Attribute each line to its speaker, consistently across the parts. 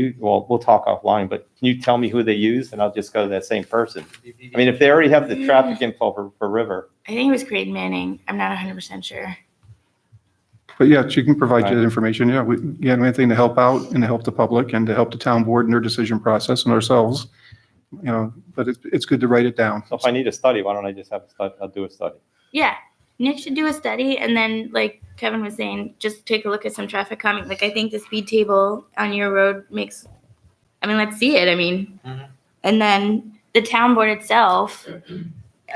Speaker 1: you, well, we'll talk offline, but can you tell me who they use and I'll just go to that same person? I mean, if they already have the traffic info for, for River,
Speaker 2: I think it was Craig Manning. I'm not 100% sure.
Speaker 3: But yeah, she can provide you
Speaker 1: Right.
Speaker 3: that information. Yeah, we, again, anything to help out and to help the public and to help the town board in their decision process and ourselves, you know, but it's, it's good to write it down.
Speaker 1: so if I need a study, why don't I just have a study, I'll do a study.
Speaker 2: Yeah. Nick should do a study and then, like Kevin was saying, just take a look at some traffic coming. Like, I think the speed table on your road makes, I mean, let's see it. I mean,
Speaker 4: Mhm.
Speaker 2: and then the town board itself,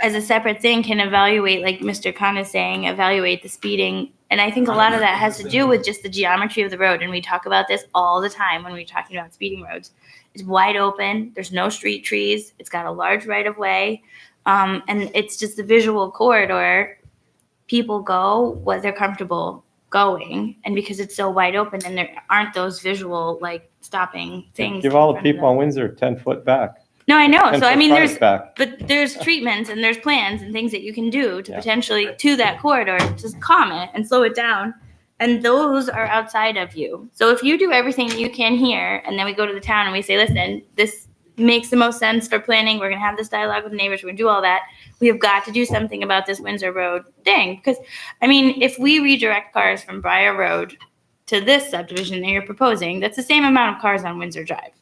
Speaker 2: as a separate thing, can evaluate, like Mr. Khan is saying, evaluate the speeding. And I think a lot of that has to do with just the geometry of the road. And we talk about this all the time when we're talking about speeding roads. It's wide open, there's no street trees, it's got a large right of way. Um, and it's just a visual corridor. People go what they're comfortable going, and because it's so wide open, and there aren't those visual like stopping things.
Speaker 1: Give all
Speaker 2: in
Speaker 1: the
Speaker 2: front of
Speaker 1: people on
Speaker 2: them.
Speaker 1: Windsor ten foot back.
Speaker 2: No, I know.
Speaker 1: 10
Speaker 2: Oh, So I
Speaker 1: foot
Speaker 2: mean,
Speaker 1: frontage
Speaker 2: there's
Speaker 1: Back.
Speaker 2: but there's treatments and there's plans and things that you can do to
Speaker 1: Yeah.
Speaker 2: potentially to that corridor just calm it and slow it down and those are outside of you so if you do everything you can here and then we go to the town and we say listen this makes the most sense for planning we're going to have this dialogue with neighbors we're going to do all that we have got to do something about this windsor road thing because i mean if we redirect cars from briar road to this subdivision that you're proposing that's the same amount of cars on windsor drive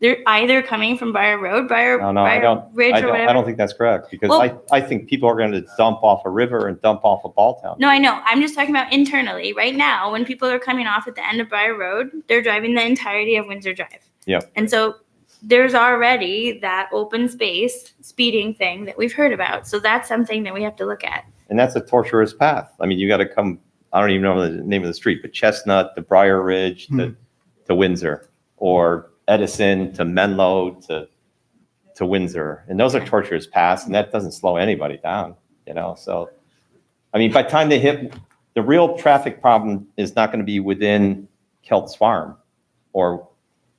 Speaker 2: they're either coming from Briar Road, Briar,
Speaker 1: No, no, I
Speaker 2: Briar
Speaker 1: don't-
Speaker 2: Ridge,
Speaker 1: I
Speaker 2: or
Speaker 1: don't,
Speaker 2: whatever.
Speaker 1: I don't think that's correct because I, I think people are going to dump off a river and dump off a ball town.
Speaker 2: No, I know. I'm just talking about internally. Right now, when people are coming off at the end of Briar Road, they're driving the entirety of Windsor Drive.
Speaker 1: Yeah.
Speaker 2: And so there's already that open space speeding thing that we've heard about. So that's something that we have to look at.
Speaker 1: And that's a torturous path. I mean, you got to come, I don't even know the name of the street, but Chestnut to Briar Ridge
Speaker 4: Hmm.
Speaker 1: to, to Windsor or Edison to Menlo to, to Windsor. And those are torturous paths and that doesn't slow anybody down, you know? So, I mean, by the time they hit, the real traffic problem is not going to be within Kelt's Farm or,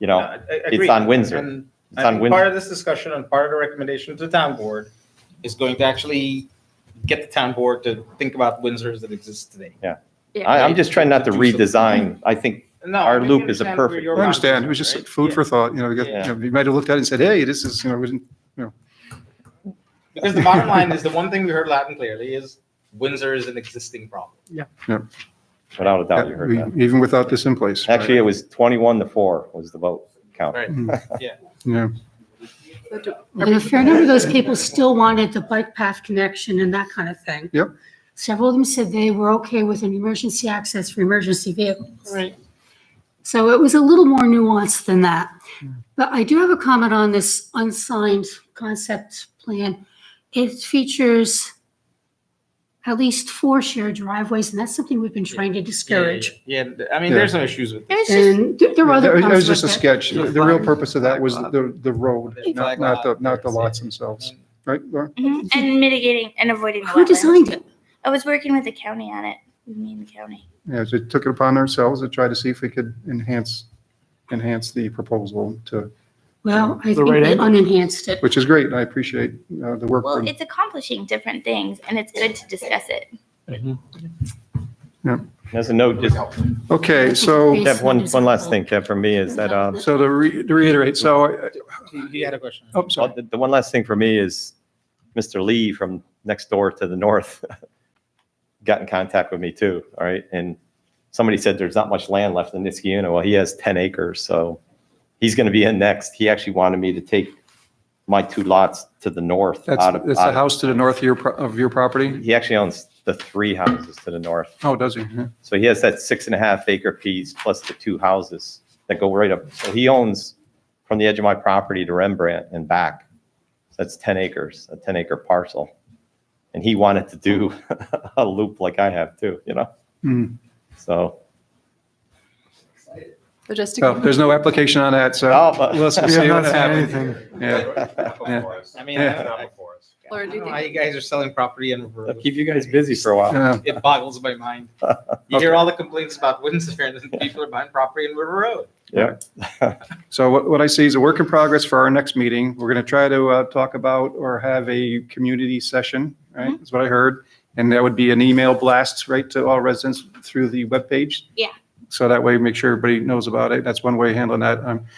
Speaker 1: you know, it's on Windsor.
Speaker 4: And
Speaker 1: It's
Speaker 4: I
Speaker 1: on
Speaker 4: think part
Speaker 1: Windsor.
Speaker 4: of this discussion and part of the recommendation to the town board is going to actually get the town board to think about Windsors that exist today.
Speaker 2: Yeah.
Speaker 1: I, I'm just trying not to
Speaker 4: To do
Speaker 1: redesign. I think,
Speaker 4: No,
Speaker 1: Our
Speaker 4: I mean,
Speaker 1: loop
Speaker 4: you
Speaker 1: is a
Speaker 4: understand where
Speaker 1: perfect-
Speaker 4: your
Speaker 3: I understand. It was
Speaker 4: boundaries are,
Speaker 3: just
Speaker 4: right?
Speaker 3: food for thought, you know, you got-
Speaker 1: Yeah.
Speaker 3: you know, you might have looked at it and said, hey, this is, you know, isn't
Speaker 4: Because the bottom line is, the one thing we heard loud and clearly is Windsor is an existing problem.
Speaker 1: without a doubt, you heard that.
Speaker 3: even without this in place. right? Mm.
Speaker 1: Actually, it was 21 to 4 was the vote count.
Speaker 4: Right.
Speaker 3: Yeah.
Speaker 5: I mean, a fair number of those people still wanted the bike path connection and that kind of thing.
Speaker 3: Yep.
Speaker 5: Several of them said they were okay with an emergency access for emergency vehicles. Right. So it was a little more nuanced than that. But I do have a comment on this unsigned concept plan. It features at least four shared driveways, and that's something we've been trying to discourage.
Speaker 4: Yeah, yeah, yeah. I mean, there's some issues with
Speaker 2: There's just,
Speaker 5: And there there were other
Speaker 3: It was
Speaker 5: problems
Speaker 3: just a
Speaker 5: with it.
Speaker 3: sketch. The real purpose of that was the, the road,
Speaker 4: Flag
Speaker 3: not, not the,
Speaker 4: lot.
Speaker 3: not the lots themselves, right? Laura?
Speaker 2: mhm, and mitigating and avoiding. the
Speaker 5: Who
Speaker 2: wetlands.
Speaker 5: designed it?
Speaker 2: I was working with the county on it. Me and the county.
Speaker 3: Yeah, so we took it upon ourselves to try to see if we could enhance, enhance the proposal to,
Speaker 5: Well, I
Speaker 3: The
Speaker 5: think
Speaker 3: right
Speaker 5: they
Speaker 3: angle.
Speaker 5: unenhanced it.
Speaker 3: which is great. and I appreciate uh, the work.
Speaker 2: Well,
Speaker 3: from-
Speaker 2: it's accomplishing different things, and it's good to discuss it.
Speaker 1: There's a note, just
Speaker 3: Okay, so,
Speaker 5: Basement
Speaker 1: Deb, one,
Speaker 5: is
Speaker 1: one last
Speaker 5: cool.
Speaker 1: thing, Deb, for me is that, um,
Speaker 3: so to re- to reiterate, so, uh,
Speaker 4: He he had a question.
Speaker 3: oh,
Speaker 1: well,
Speaker 3: sorry.
Speaker 1: the the one last thing for me is Mr. Lee from next door to the north got in contact with me too, all right? And somebody said there's not much land left in Niskiuna. Well, he has 10 acres, so he's going to be in next. He actually wanted me to take my two lots to the north
Speaker 3: That's,
Speaker 1: out of,
Speaker 3: that's the
Speaker 1: out
Speaker 3: house to the north of your, pro- of your
Speaker 1: of-
Speaker 3: property?
Speaker 1: he actually owns the three houses to the north.
Speaker 3: Oh, does he? Yeah.
Speaker 1: So he has that six and a half acre piece plus the two houses that go right up. So he owns from the edge of my property to Rembrandt and back. So that's 10 acres, a 10 acre parcel. And he wanted to do a loop like I have too, you know?
Speaker 3: Hmm.
Speaker 1: So,
Speaker 6: So just to
Speaker 3: Well, there's no application on that, so
Speaker 1: Oh, but-
Speaker 3: we'll see
Speaker 7: We have
Speaker 3: what
Speaker 7: not seen
Speaker 3: happens.
Speaker 7: anything.
Speaker 3: Yeah.
Speaker 4: I mean,
Speaker 3: Yeah.
Speaker 4: I don't know. I
Speaker 6: Laura, do
Speaker 4: don't
Speaker 6: you
Speaker 4: know
Speaker 6: think
Speaker 4: how you guys are selling property in reverse.
Speaker 1: I'll keep you guys busy for a while.
Speaker 3: Yeah.
Speaker 4: It boggles my mind. You hear all the complaints about Windsor and then people are buying property in River Road.
Speaker 3: So what, what I see is a work in progress for our next meeting. We're going to try to uh, talk about or have a community session,
Speaker 2: Mm-hmm.
Speaker 3: right? Is what I heard. And that would be an email blast right to all residents through the webpage.
Speaker 2: Yeah.
Speaker 3: So that way, make sure everybody knows about it. That's one way of handling that. Um,